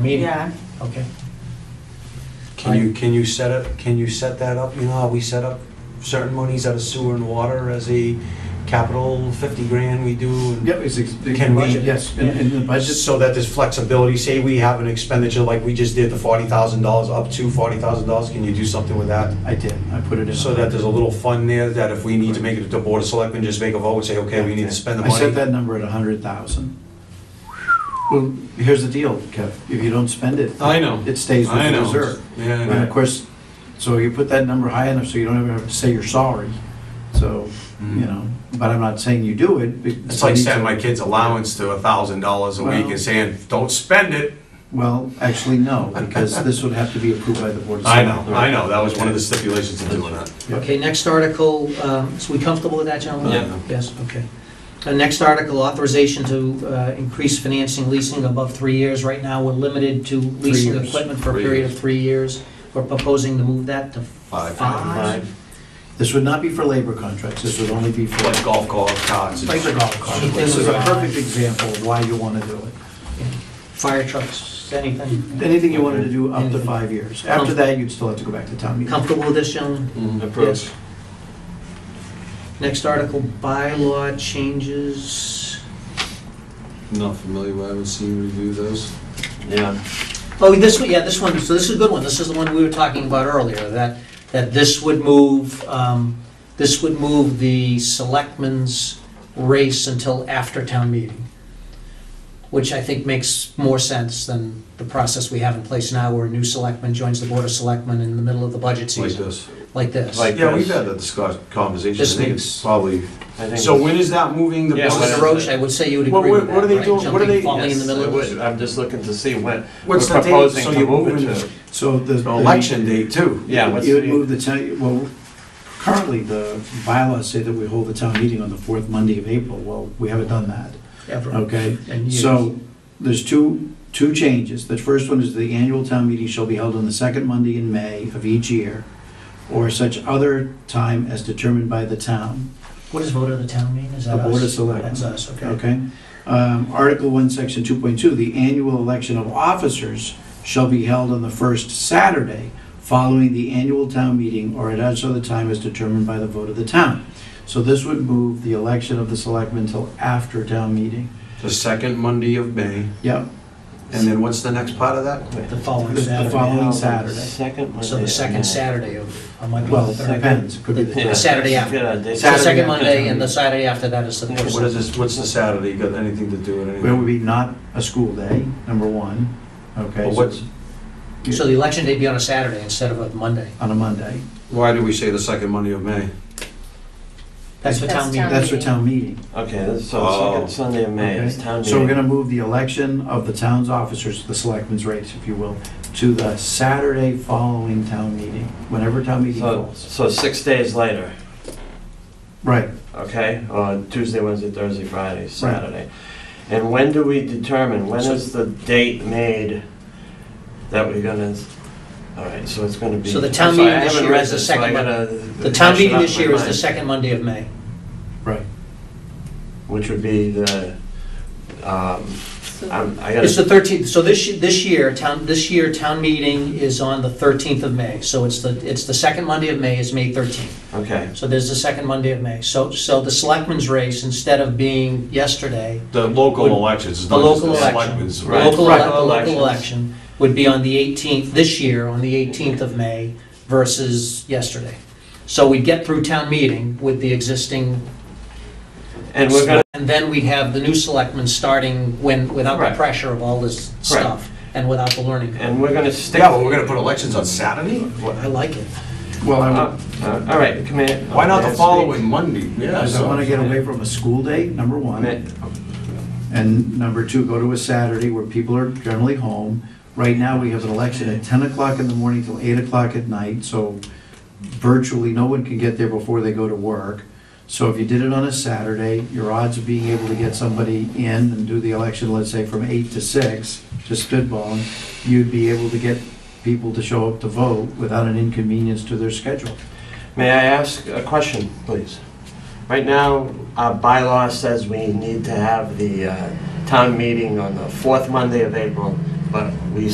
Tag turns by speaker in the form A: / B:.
A: meeting?
B: Yeah,
A: Okay.
C: Can you, can you set it, can you set that up? You know how we set up certain monies out of sewer and water as a capital, 50 grand we do? and-
D: Yep, it's, it's
C: Can
D: in
C: we-
D: budget, yes, in, in the budget.
C: So that there's flexibility, say we have an expenditure like we just did, the $40,000, up to $40,000, can you do something with that?
D: I did, I put it in.
C: So that there's a little fund there that if we need to make it to Board of Selectmen, just make a vote and say, okay, we need to spend the
D: I set
C: money.
D: that number at a hundred thousand. Well, here's the deal, Kev, if you don't spend it.
C: I know.
D: It stays with
C: I
D: the
C: know.
D: reserve.
C: Yeah, I
D: And of
C: know.
D: course, so you put that number high enough so you don't ever have to say you're sorry, so, you know, but I'm not saying you do it. but-
C: Mm. It's like setting my kid's allowance to $1,000 a week
D: Well-
C: and saying, don't spend it.
D: Well, actually, no, because this would have to be approved by the board. of
C: I know,
D: Selectmen.
C: I know, that was one of the stipulations of doing that.
D: Yeah.
A: Okay, next article, um, so we comfortable with that, gentlemen?
C: Yeah.
A: Yes, okay. The next article, authorization to uh, increase financing leasing above three years. Right now, we're limited to leasing
D: years.
A: equipment for a
C: Three
A: period
C: years.
A: of three years. We're proposing to move that to
C: Five.
A: five.
D: This would not be for labor contracts, this would only be for.
C: Like golf cart, cars.
D: Like the golf cart. This is a perfect example of why you want to do it.
A: Fire trucks, anything.
D: Anything you wanted to do up to five years. After that, you'd still have to go back to town meeting.
A: Comfortable with this, gentlemen?
E: approach.
A: Next article, bylaw changes.
E: Not familiar, with. I haven't seen you review those. Yeah.
A: Oh, this one, yeah, this one, so this is a good one, this is the one we were talking about earlier, that, that this would move, um, this would move the selectmen's race until after town meeting, which I think makes more sense than the process we have in place now, where a new selectman joins the board of selectmen in the middle of the budget
E: Like
A: season,
E: this.
A: like this.
E: Like-
C: Yeah, we've had that discuss, conversation, I
A: This
C: think
A: makes-
C: it's probably,
E: I think
C: so
E: it's-
C: when is that moving the?
E: Yeah,
C: bus?
A: Mr. Roach, I would say you would
C: What-
A: agree with
C: what- what are
A: that,
C: they
A: right?
C: doing? What are
A: Jumping,
C: they-
A: falling in the
E: Yes,
A: middle
E: I
A: of
E: would. I'm just looking to see when.
C: What's
E: we're
C: the date?
E: proposing
C: So
E: to
C: you're
E: move it
C: moving
E: to-
C: the
D: So the.
C: election date too?
E: Yeah, what's
D: You would
E: the-
D: move the town, well, currently, the bylaws say that we hold the town meeting on the fourth Monday of April. Well, we haven't done that,
A: Ever.
D: okay?
A: And
D: So there's two, two changes. The first one is the annual town meeting shall be held on the second Monday in May of each year or such other time as determined by the town.
A: What does vote of the town mean, is that
D: The
A: us?
D: Board of Selectmen.
A: That's us, okay.
D: Okay. Um, Article 1, Section 2.2, the annual election of officers shall be held on the first Saturday following the annual town meeting or at such other time as determined by the vote of the town. So this would move the election of the selectmen till after town meeting.
C: The second Monday of May,
D: Yep,
C: and then what's the next part of that?
A: The following
D: The- the
A: Saturday.
D: following
E: Now, the
D: Saturday.
E: Second Monday.
A: So the second Saturday of, of my
D: well,
A: month.
D: it depends, it could be the
E: Yeah.
D: third.
A: Saturday after.
E: Yeah, they-
A: So the
D: Saturday
A: second
D: after
A: Monday and
D: town
A: the
D: meeting.
A: Saturday after that is the
E: Yeah,
A: first.
C: What is this, what's the Saturday, got anything to do with
D: Where would
C: anything?
D: be not a school day, number one, okay?
C: Well,
D: so
C: what's-
D: be-
A: So the election day be on a Saturday instead of a Monday.
D: On a Monday.
C: Why do we say the second Monday of May?
A: That's for town
F: That's
A: meeting.
F: town-
D: That's for town meeting.
E: Okay, that's-
C: Oh.
E: so second Sunday of May is
D: Okay.
E: town
D: So we're
E: meeting.
D: gonna move the election of the town's officers, the selectmen's race, if you will, to the Saturday following town meeting, whenever town meeting
E: So,
D: falls.
E: so six days later,
D: Right,
E: okay, on Tuesday, Wednesday, Thursday, Friday, Saturday. And when do we determine, when
D: So-
E: is the date made that we're gonna, all right, so it's gonna be.
A: So the town
E: I'm sorry, I
A: meeting this
E: haven't
A: year
E: read
A: is the
E: this, so I
A: second
E: gotta
A: The
E: hash
A: town
E: it
A: meeting
E: out
A: this
E: in my
A: year is the
E: mind.
A: second Monday of May.
D: right.
E: Which would be the, um, I'm- I
A: It's the
E: gotta,
A: 13th, so this, ye- this year, town, this year, town meeting is on the 13th of May. So it's the, it's the second Monday of May is May 13th.
E: okay,
A: So there's the second Monday of May. So, so the selectmen's race, instead of being yesterday,
C: The local elections, it's
A: The
C: not just
A: local
C: the
A: election,
C: selectmen's,
A: the
E: right.
A: local,
E: Right.
A: elec- the local
E: Elections.
A: election would be on the 18th, this year, on the 18th of May versus yesterday. So we'd get through town meeting with the existing,
E: and we're gonna,
A: and then we'd have the new selectmen starting when, without the
E: Right.
A: pressure of all this stuff and without the learning curve.
E: and we're gonna stick.
C: Yeah, but we're gonna put elections on Saturday?
A: I like it.
D: Well, I
E: Uh,
D: would-
E: uh, All right, come in.
C: Why not the
E: Next
C: following
E: week.
C: Monday? Yeah,
D: because I
C: so-
D: wanna get away from a school day, number one. And number two, go to a Saturday where people are generally home. Right now, we have an election at ten o'clock in the morning till eight o'clock at night, so virtually no one can get there before they go to work. So if you did it on a Saturday, your odds of being able to get somebody in and do the election, let's say from eight to six, just spitballing, you'd be able to get people to show up to vote without an inconvenience to their schedule.
E: May I ask a question, please? Right now, our bylaw says we need to have the uh, town meeting on the fourth Monday of April, but we